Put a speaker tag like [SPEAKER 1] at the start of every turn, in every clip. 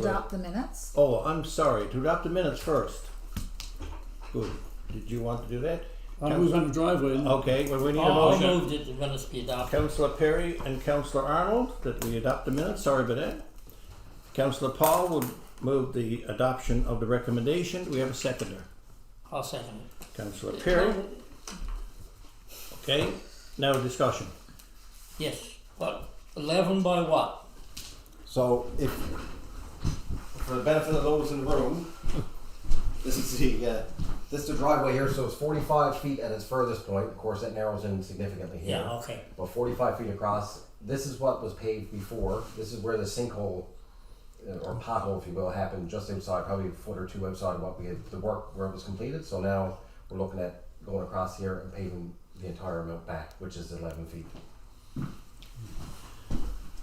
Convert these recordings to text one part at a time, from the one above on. [SPEAKER 1] to adopt the minutes.
[SPEAKER 2] Oh, I'm sorry, to adopt the minutes first. Good, did you want to do that?
[SPEAKER 3] I was on the driveway and
[SPEAKER 2] Okay, well, we need a
[SPEAKER 4] I'll
[SPEAKER 2] motion.
[SPEAKER 4] Oh, move that the minutes be adopted.
[SPEAKER 2] Councillor Perry and Councillor Arnold, that we adopt the minutes, sorry about that. Councillor Paul will move the adoption of the recommendation, we have a seconder.
[SPEAKER 4] I'll second it.
[SPEAKER 2] Councillor Perry, okay, now discussion.
[SPEAKER 4] Yes, what, eleven by what?
[SPEAKER 5] So, if for the benefit of those in the room, this is the uh, this is the driveway here. So it's 45 feet at its furthest point. Of course, that narrows in significantly here.
[SPEAKER 4] Yeah, okay,
[SPEAKER 5] But 45 feet across. This is what was paved before. This is where the sinkhole uh, or pothole, if you will, happened just inside, probably a foot or two outside of what we had the work where it was completed. So now we're looking at going across here and paving the entire amount back, which is 11 feet.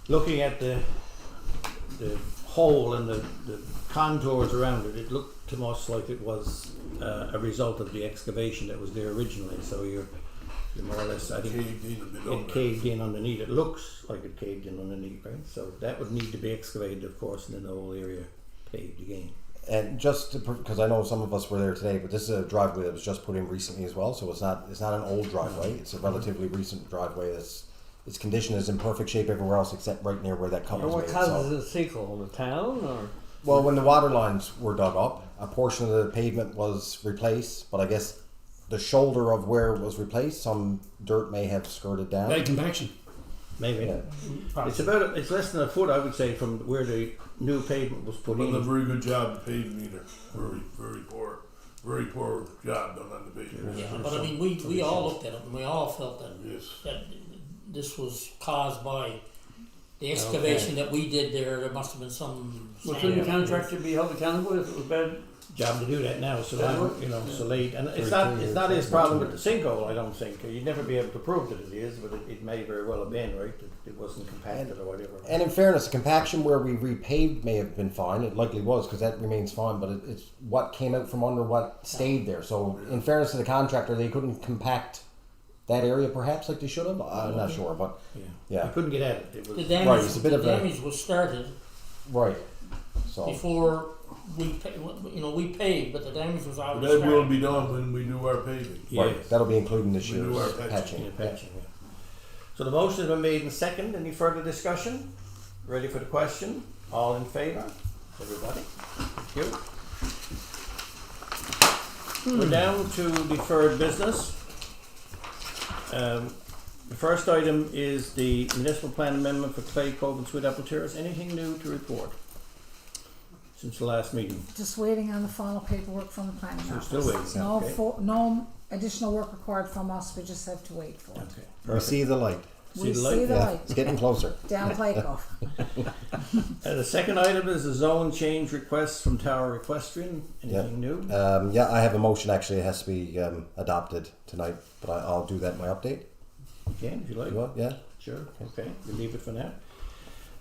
[SPEAKER 2] Looking at the, the hole and the, the contours around it, it looked to us like it was, uh, a result of the excavation that was there originally, so you're, you're more or less, I think.
[SPEAKER 6] caved in a bit
[SPEAKER 2] it
[SPEAKER 6] over.
[SPEAKER 2] caved in underneath. It looks like it caved in underneath, right? So that would need to be excavated, of course, and then the whole area paved again.
[SPEAKER 5] And just because I know some of us were there today, but this is a driveway that was just put in recently as well, so it's not it's not an old driveway.
[SPEAKER 7] Mm-hmm.
[SPEAKER 5] It's a relatively recent driveway. That's its condition is in perfect shape everywhere else except right near where that cut was
[SPEAKER 7] what
[SPEAKER 5] made. So.
[SPEAKER 7] causes the sinkhole? The town or?
[SPEAKER 5] Well, when the water lines were dug up, a portion of the pavement was replaced, but I guess the shoulder of where it was replaced, some dirt may have skirted down.
[SPEAKER 3] bad compaction.
[SPEAKER 2] Maybe
[SPEAKER 5] Yeah.
[SPEAKER 2] it's about a, it's less than a foot, I would say, from where the new pavement was put
[SPEAKER 6] Done a
[SPEAKER 2] in.
[SPEAKER 6] very good job of paving either. Very, very poor, very poor job done on the pavement.
[SPEAKER 4] yeah, but I mean, we, we all looked at it and we all felt that,
[SPEAKER 6] Yes.
[SPEAKER 4] that this was caused by the excavation that we did there, there must have been some.
[SPEAKER 7] Well,
[SPEAKER 4] sand.
[SPEAKER 7] couldn't the contractor be held accountable if it was bad?
[SPEAKER 2] Job to do that now, so I'm, you know, so late, and it's not it's not his problem with the sinkhole. I don't think you'd never be able to prove that it is, but it, it may very well have been right. It, it wasn't compacted or whatever.
[SPEAKER 5] And in fairness, the compaction where we repaved may have been fine. It likely was because that remains fine, but it, it's what came out from under what stayed there. So, in fairness to the contractor, they couldn't compact that area perhaps like they should have. I'm not sure, but
[SPEAKER 2] yeah,
[SPEAKER 5] Yeah.
[SPEAKER 2] You couldn't get at it. It
[SPEAKER 4] The
[SPEAKER 2] was
[SPEAKER 4] damage,
[SPEAKER 5] it's a bit
[SPEAKER 4] the
[SPEAKER 5] of a- Oh.
[SPEAKER 4] damage was started
[SPEAKER 5] right. So,
[SPEAKER 4] before we, pa- you know, we paid, but the damage was
[SPEAKER 6] But
[SPEAKER 4] already
[SPEAKER 6] that will
[SPEAKER 4] started.
[SPEAKER 6] be done when we do our paving.
[SPEAKER 5] right,
[SPEAKER 2] yes.
[SPEAKER 5] that'll be including this
[SPEAKER 6] We do
[SPEAKER 5] year's
[SPEAKER 6] our patching.
[SPEAKER 5] patching.
[SPEAKER 2] Yeah, patching, yeah. So the motion has been made and second. Any further discussion? Ready for the question? All in favor? Everybody? Thank you. We're down to deferred business. Um, the first item is the municipal plan amendment for Clay Cove and Sweet Apple Terrace. Anything new to report since the last meeting?
[SPEAKER 1] Just waiting on the final paperwork from the planning
[SPEAKER 2] So we're
[SPEAKER 1] office.
[SPEAKER 2] still waiting,
[SPEAKER 1] It's No,
[SPEAKER 2] okay.
[SPEAKER 1] fo- no additional work required from us, we just have to wait for it.
[SPEAKER 2] Okay.
[SPEAKER 5] We see the light.
[SPEAKER 2] See
[SPEAKER 1] We
[SPEAKER 2] the light?
[SPEAKER 1] see the
[SPEAKER 5] Yeah,
[SPEAKER 1] light
[SPEAKER 5] it's getting closer.
[SPEAKER 1] down Plakoff.
[SPEAKER 2] Uh, the second item is the zone change request from Tower Equestrian. Anything new?
[SPEAKER 5] Um, yeah, I have a motion actually. It has to be um, adopted tonight, but I, I'll do that in my update.
[SPEAKER 2] Okay, if you like.
[SPEAKER 5] You want? Yeah.
[SPEAKER 2] Sure, okay, we leave it for now.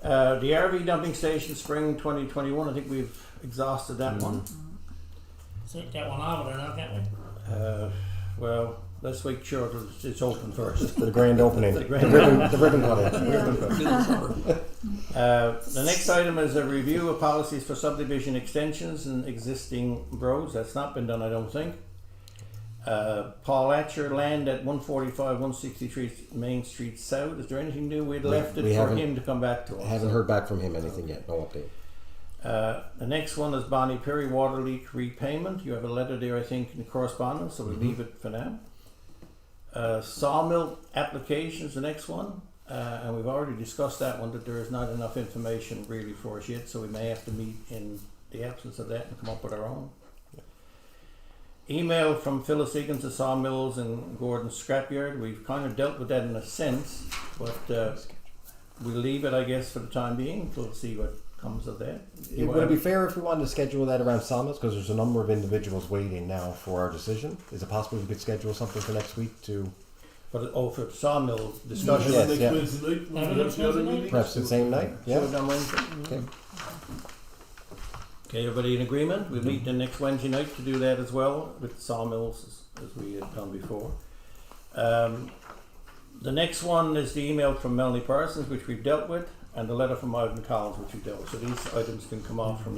[SPEAKER 2] Uh, the RV dumping station, spring twenty twenty-one, I think we've exhausted that one.
[SPEAKER 5] Mm-hmm.
[SPEAKER 4] Take that one out of there, not that one.
[SPEAKER 2] Uh, well, let's make sure that it's- it's open first.
[SPEAKER 5] The grand opening.
[SPEAKER 2] The
[SPEAKER 5] the,
[SPEAKER 2] grand
[SPEAKER 5] ribbon, the ribbon cutting.
[SPEAKER 2] Uh, the next item is a review of policies for subdivision extensions and existing roads. That's not been done, I don't think. Uh, Paul Atcher, land at one forty-five, one sixty-three Main Street South. Is there anything new? We'd left it
[SPEAKER 5] we
[SPEAKER 2] for
[SPEAKER 5] haven't-
[SPEAKER 2] him to come back to us.
[SPEAKER 5] I haven't heard back from him anything yet. No update.
[SPEAKER 2] Uh, the next one is Bonnie Perry water leak repayment. You have a letter there, I think, in correspondence, so we leave it for now. Uh, sawmill applications, the next one, uh, and we've already discussed that one. That there is not enough information really for us yet, so we may have to meet in the absence of that and come up with our own. Email from Phyllis Egan to Sawmills and Gordon Scrapyard. We've kind of dealt with that in a sense, but uh, we leave it, I guess, for the time being. We'll see what comes of that.
[SPEAKER 5] It, would it be fair if we wanted to schedule that around Samas? Because there's a number of individuals waiting now for our decision. Is it possible we could schedule something for next week to
[SPEAKER 2] For the, oh, for sawmill
[SPEAKER 6] Next
[SPEAKER 2] discussion.
[SPEAKER 5] Yes, yeah.
[SPEAKER 6] Wednesday night, when we
[SPEAKER 4] Have
[SPEAKER 6] have
[SPEAKER 4] it
[SPEAKER 6] the other
[SPEAKER 4] Wednesday night?
[SPEAKER 6] meeting?
[SPEAKER 5] perhaps the same night?
[SPEAKER 2] Do
[SPEAKER 5] Yeah.
[SPEAKER 2] it on Wednesday?
[SPEAKER 5] Okay.
[SPEAKER 2] Okay, everybody in agreement? We'll meet the next Wednesday night to do that as well with sawmills as, as we had done before. Um, the next one is the email from Melanie Parsons, which we've dealt with. and the letter from Ivan Collins, which you dealt with. So these items can come off from